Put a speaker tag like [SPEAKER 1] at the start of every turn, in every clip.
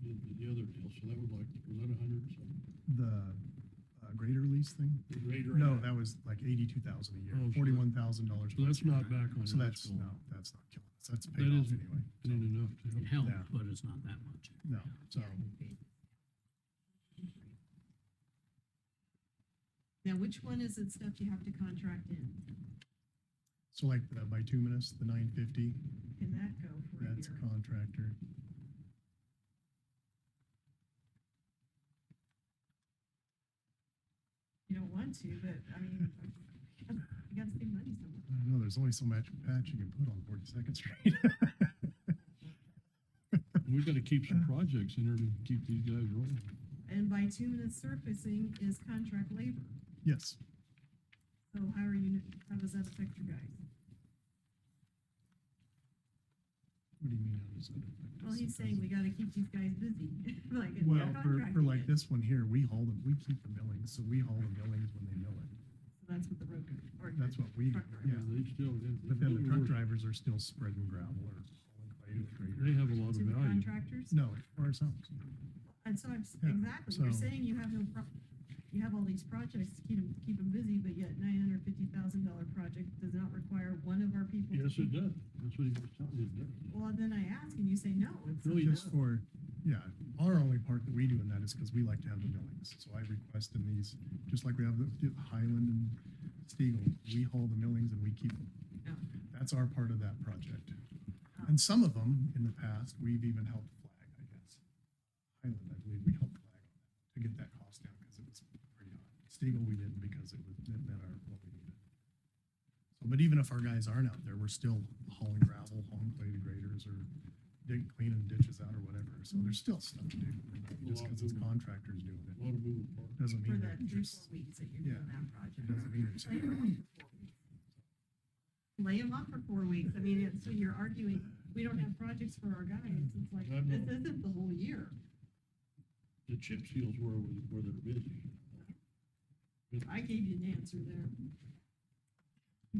[SPEAKER 1] the other deal, so that was like, was that a hundred and something?
[SPEAKER 2] The uh, greater lease thing?
[SPEAKER 1] The greater
[SPEAKER 2] No,
[SPEAKER 1] amount.
[SPEAKER 2] that was like eighty-two thousand a year,
[SPEAKER 1] Oh, so that-
[SPEAKER 2] forty-one thousand dollars.
[SPEAKER 1] So that's not back on
[SPEAKER 2] So
[SPEAKER 1] high
[SPEAKER 2] that's,
[SPEAKER 1] school.
[SPEAKER 2] no, that's not killing us. That's
[SPEAKER 1] That
[SPEAKER 2] paid off
[SPEAKER 1] isn't-
[SPEAKER 2] anyway.
[SPEAKER 1] Isn't enough to
[SPEAKER 3] It
[SPEAKER 1] help.
[SPEAKER 3] helped,
[SPEAKER 2] Yeah.
[SPEAKER 3] but it's not that much.
[SPEAKER 2] No, so,
[SPEAKER 4] Now, which one is it stuff you have to contract in?
[SPEAKER 2] so like the bituminous, the nine fifty,
[SPEAKER 4] Can that go for a
[SPEAKER 2] that's
[SPEAKER 4] year?
[SPEAKER 2] contractor.
[SPEAKER 4] You don't want to, but I mean, you gotta- you gotta save money somewhere.
[SPEAKER 2] I don't know, there's only so much patch you can put on Forty-second Street.
[SPEAKER 1] We've got to keep some projects in there to keep these guys rolling.
[SPEAKER 4] And bituminous surfacing is contract labor.
[SPEAKER 2] Yes,
[SPEAKER 4] So how are you, how does that affect your guys?
[SPEAKER 2] what do you mean? how does that affect
[SPEAKER 4] Well,
[SPEAKER 2] us?
[SPEAKER 4] he's saying we gotta keep these guys busy, like, they're
[SPEAKER 2] Well, for, for
[SPEAKER 4] contracting
[SPEAKER 2] like
[SPEAKER 4] it.
[SPEAKER 2] this one here, we haul them, we keep the millings, so we haul the millings when they mill it.
[SPEAKER 4] So That's what the road, guy- or
[SPEAKER 2] That's what we,
[SPEAKER 4] Truck driver.
[SPEAKER 2] yeah,
[SPEAKER 1] They still. it-
[SPEAKER 2] but then the truck
[SPEAKER 1] it-
[SPEAKER 2] drivers are still spreading gravel or hauling clay to the grader.
[SPEAKER 1] They have a lot of
[SPEAKER 4] to the
[SPEAKER 1] value.
[SPEAKER 4] contractors.
[SPEAKER 2] No, for ourselves.
[SPEAKER 4] And so I'm, s-
[SPEAKER 2] Yeah,
[SPEAKER 4] exactly, you're
[SPEAKER 2] so-
[SPEAKER 4] saying you have no pro, you have all these projects to keep them, keep 'em busy, but yet nine hundred fifty thousand dollar project does not require one of our people. to
[SPEAKER 1] Yes,
[SPEAKER 4] be-
[SPEAKER 1] it does. That's what he was telling you, it does.
[SPEAKER 4] Well, then I ask and you say no. It's
[SPEAKER 1] Really
[SPEAKER 2] Just
[SPEAKER 1] not.
[SPEAKER 2] for, yeah, our only part that we do in that is because we like to have the millings. So I request in these, just like we have the the Highland and Stegall, we haul the millings and we keep them.
[SPEAKER 4] Yeah.
[SPEAKER 2] That's our part of that project. And some of them, in the past, we've even helped flag, I guess. Highland, I believe we helped flag on that to get that cost down because it was pretty high. Stegall, we didn't because it was, it met our, what we needed. So, But even if our guys aren't out there, we're still hauling gravel, hauling clay to graders or dig, cleaning ditches out or whatever. So there's still stuff to do. Just because it's contractors doing
[SPEAKER 1] A
[SPEAKER 2] it
[SPEAKER 1] lot of moving parts.
[SPEAKER 2] doesn't
[SPEAKER 4] For
[SPEAKER 2] mean
[SPEAKER 4] that
[SPEAKER 2] that
[SPEAKER 4] three,
[SPEAKER 2] there's,
[SPEAKER 4] four weeks that you're
[SPEAKER 2] yeah.
[SPEAKER 4] doing that project.
[SPEAKER 2] it doesn't mean there's.
[SPEAKER 4] Lay 'em up for four weeks. Lay them up for four weeks. I mean, it's, so you're arguing, we don't have projects for our guys. It's like,
[SPEAKER 1] I'm
[SPEAKER 4] this
[SPEAKER 1] not-
[SPEAKER 4] isn't the whole year.
[SPEAKER 1] The chip seals where, where they're busy.
[SPEAKER 4] I gave you an answer there.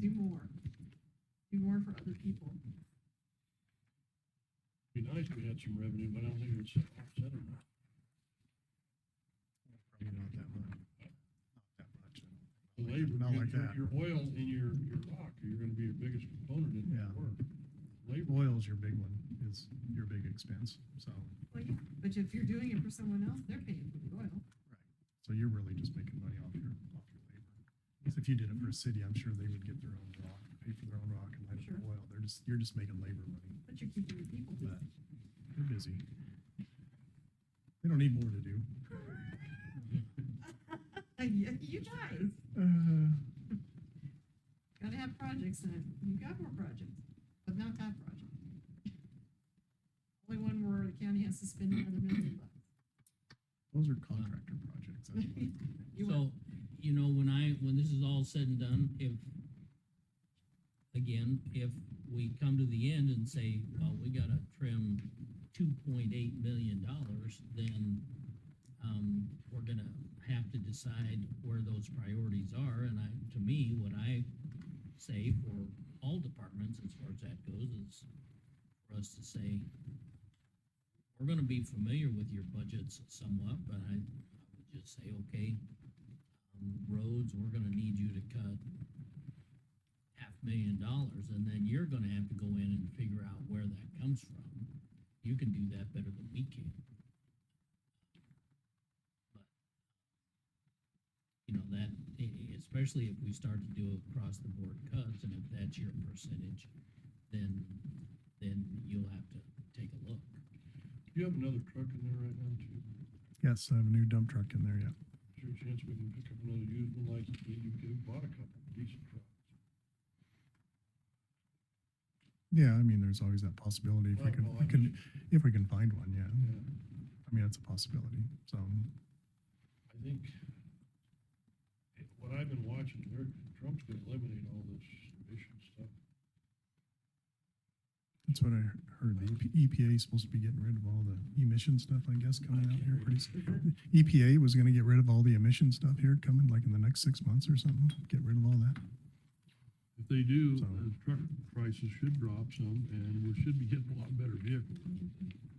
[SPEAKER 4] Do more. Do more for other people.
[SPEAKER 1] Be nice if we had some revenue, but I don't think it's offset enough.
[SPEAKER 2] Probably not that much. Not
[SPEAKER 1] The
[SPEAKER 2] that much.
[SPEAKER 1] labor,
[SPEAKER 2] Not like
[SPEAKER 1] your-
[SPEAKER 2] that.
[SPEAKER 1] your oil and your, your rock, you're gonna be your biggest component in
[SPEAKER 2] Yeah.
[SPEAKER 1] that work. Labor,
[SPEAKER 2] Oil's your big one, is your big expense, so,
[SPEAKER 4] Well, yeah, but if you're doing it for someone else, they're paying for the oil.
[SPEAKER 2] so you're really just making money off your, off your labor. 'Cause if you did it for a city, I'm sure they would get their own rock, pay for their own rock and light up
[SPEAKER 4] Sure.
[SPEAKER 2] their oil, they're just, you're just making labor money,
[SPEAKER 4] But you're keeping your people busy.
[SPEAKER 2] but they're busy. They don't need more to do.
[SPEAKER 4] Yeah, You guys
[SPEAKER 2] Uh,
[SPEAKER 4] gotta have projects and you got more projects, but not that project. Only one where the county has to spend another million bucks.
[SPEAKER 2] those
[SPEAKER 1] uh.
[SPEAKER 2] are contractor projects, that's why.
[SPEAKER 4] You
[SPEAKER 3] So, you know, when I, when this is all said and done, if, again, if we come to the end and say, well, we gotta trim two point eight million dollars, then, um, we're gonna have to decide where those priorities are, and I, to me, what I say for all departments, as far as that goes, is for us to say, we're gonna be familiar with your budgets somewhat, but I, I would just say, okay, um, roads, we're gonna need you to cut half million dollars, and then you're gonna have to go in and figure out where that comes from. You can do that better than we can. But You know, that, e- e- especially if we start to do across the board cuts, and if that's your percentage, then, then you'll have to take a look.
[SPEAKER 1] do you have another truck in there right now too?
[SPEAKER 2] Yes, I have a new dump truck in there, yeah.
[SPEAKER 1] Is there a chance we can pick up another used one like you did? You could have bought a couple decent trucks?
[SPEAKER 2] Yeah, I mean, there's always that possibility if we
[SPEAKER 1] Well,
[SPEAKER 2] can,
[SPEAKER 1] well,
[SPEAKER 2] we
[SPEAKER 1] I
[SPEAKER 2] can, if we can find one, yeah.
[SPEAKER 1] Yeah,
[SPEAKER 2] I mean, that's a possibility, so,
[SPEAKER 1] I think it- what I've been watching, they're, Trump's gonna eliminate all this emission stuff.
[SPEAKER 2] that's what I heard, the E EPA is supposed to be getting rid of all the emission stuff, I guess, coming out here pretty soon. EPA was gonna get rid of all the emission stuff here coming, like in the next six months or something, get rid of all that.
[SPEAKER 1] If they do,
[SPEAKER 2] So-
[SPEAKER 1] the truck prices should drop some and we should be getting a lot better vehicles.